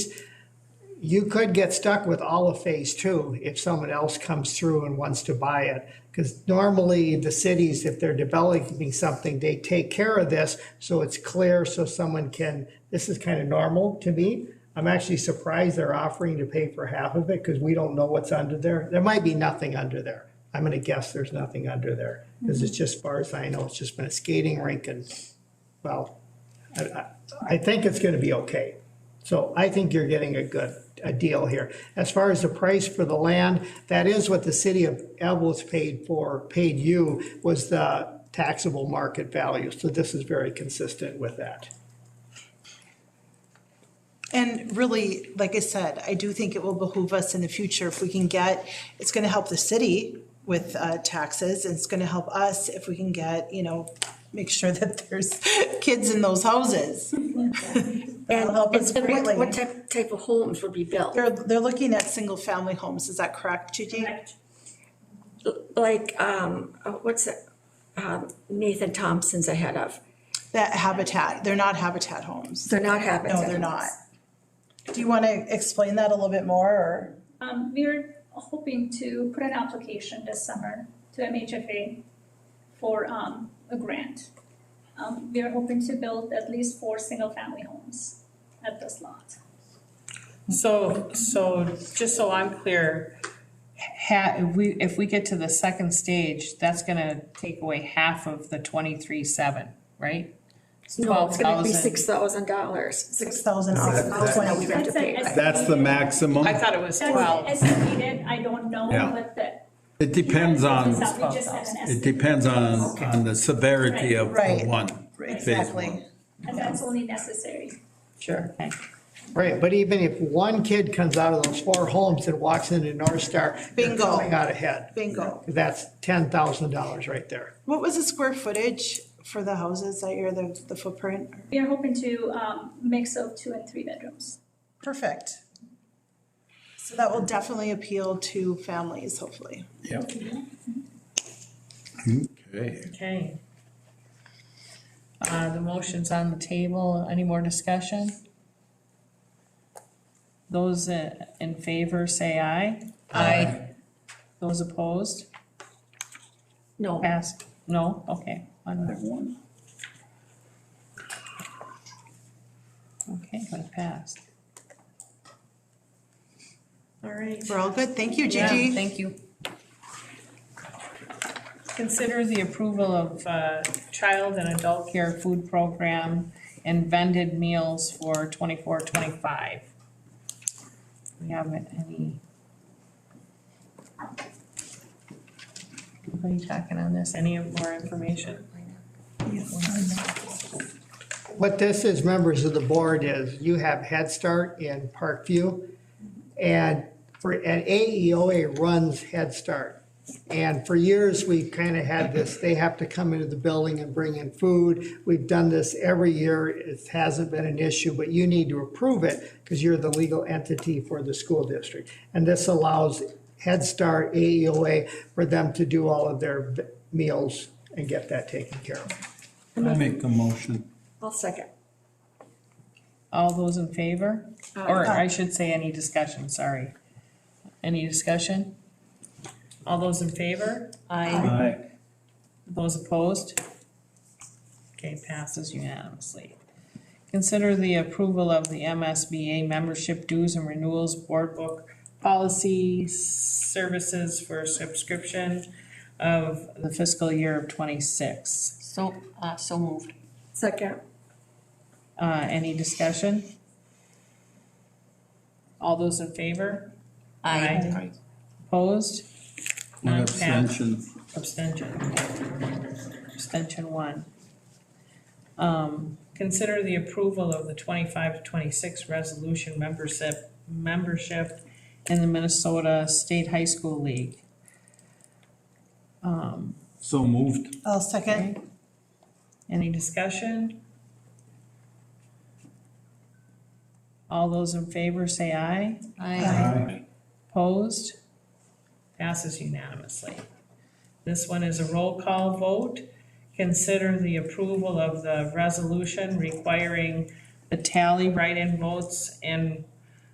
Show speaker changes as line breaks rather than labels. you could get stuck with all of phase two if someone else comes through and wants to buy it. Because normally the cities, if they're developing something, they take care of this so it's clear so someone can, this is kind of normal to me. I'm actually surprised they're offering to pay for half of it because we don't know what's under there. There might be nothing under there. I'm going to guess there's nothing under there because it's just, as far as I know, it's just been a skating rink and, well, I, I, I think it's going to be okay. So I think you're getting a good, a deal here. As far as the price for the land, that is what the city of Evlith paid for, paid you, was the taxable market value. So this is very consistent with that.
And really, like I said, I do think it will behoove us in the future if we can get, it's gonna help the city with uh taxes, and it's gonna help us if we can get, you know, make sure that there's kids in those houses. That'll help us
And what- What
greatly.
type, type of homes would be built?
They're they're looking at single-family homes, is that correct, Gigi?
Like, um, uh, what's it, um, Nathan Thompson's ahead of,
That habitat, they're not habitat homes.
they're not habitat
No, they're not.
homes.
Do you wanna explain that a little bit more, or?
Um, we're hoping to put an application this summer to MHFA for, um, a grant. Um, we are hoping to build at least four single-family homes at this lot.
So, so just so I'm clear, ha, if we, if we get to the second stage, that's gonna take away half of the twenty-three seven, right?
No, it's gonna be
12,000.
six thousand dollars,
Six
six
thousand
thousand that we have to pay, right?
That's the maximum.
I thought it was twelve.
That's estimated, I don't know,
Yeah.
but the.
It depends on,
We just have an
it
estimate,
depends on, on the severity of
Right.
of one. phase
Exactly.
one.
and that's only necessary.
Sure.
Right, but even if one kid comes out of those four homes and walks into North Star, they're
Bingo.
going out ahead.
Bingo.
That's ten thousand dollars right there.
What was the square footage for the houses that year, the, the footprint?
We are hoping to, um, mix up two and three bedrooms.
Perfect. So that will definitely appeal to families, hopefully.
Okay.
Okay. Uh, the motion's on the table, any more discussion? Those uh, in favor say aye. Aye. Those opposed,
No,
pass, no, okay, one more. Okay, but it passed.
all right.
We're all good, thank you,
Yeah,
Gigi.
Thank you. Consider the approval of uh, child and adult care food program and vended meals for twenty-four, twenty-five. We haven't any. Anybody talking on this, any more information?
What this is, members of the board, is you have Head Start in Parkview, and for, and AEOA runs Head Start. And for years, we've kind of had this, they have to come into the building and bring in food. We've done this every year, it hasn't been an issue, but you need to approve it because you're the legal entity for the school district. And this allows Head Start, AEOA, for them to do all of their meals and get that taken care of.
I make a motion.
I'll second.
All those in favor? Or I should say any discussion, sorry. Any discussion? All those in favor? Aye.
Aye.
Those opposed? Okay, passes unanimously. Consider the approval of the MSBA membership dues and renewals board book policy services for subscription of the fiscal year of twenty-six.
So, uh, so moved.
Second,
Uh, any discussion? All those in favor? Opposed?
One
None passed.
abstention.
Abstention. Abstention one. Um, consider the approval of the twenty-five to twenty-six resolution membership, membership in the Minnesota State High School League. Um,
So moved.
I'll second.
okay. Any discussion? All those in favor say aye.
Aye.
Opposed? Passes unanimously. This one is a roll call vote. Consider the approval of the resolution requiring the tally write-in votes and